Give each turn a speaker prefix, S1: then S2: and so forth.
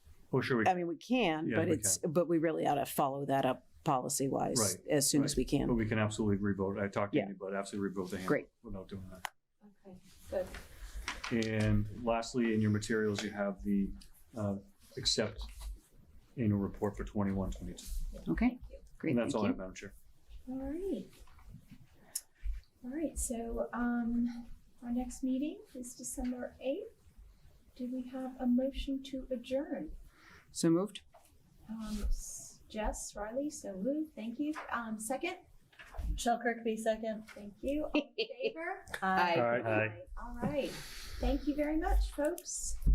S1: Oh, sure. we-
S2: I mean, we can,
S1: Yeah,
S2: but
S1: we
S2: it's, but we really ought to follow that up policy wise
S1: Right,
S2: as soon
S1: right.
S2: as we
S1: But
S2: can.
S1: oh, we can absolutely revote. I talked to
S2: Yeah.
S1: you about absolutely revote the handbook.
S2: Great.
S1: Without doing that.
S3: Okay, good.
S1: And lastly, in your materials, you have the uh, accept annual report for 21, 22.
S2: Okay,
S3: Thank you.
S2: great,
S1: And that's
S2: thank
S1: all I have,
S2: you.
S1: Madam Chair.
S3: All right. All right, so um, our next meeting is December 8th. Do we have a motion to adjourn?
S2: So moved?
S3: Um, s- Jess, Riley, so moved. Thank you. Um, Second?
S4: Shall Kirkby second?
S3: Thank you. All in favor?
S1: Aye.
S3: All right. Thank you very much, folks.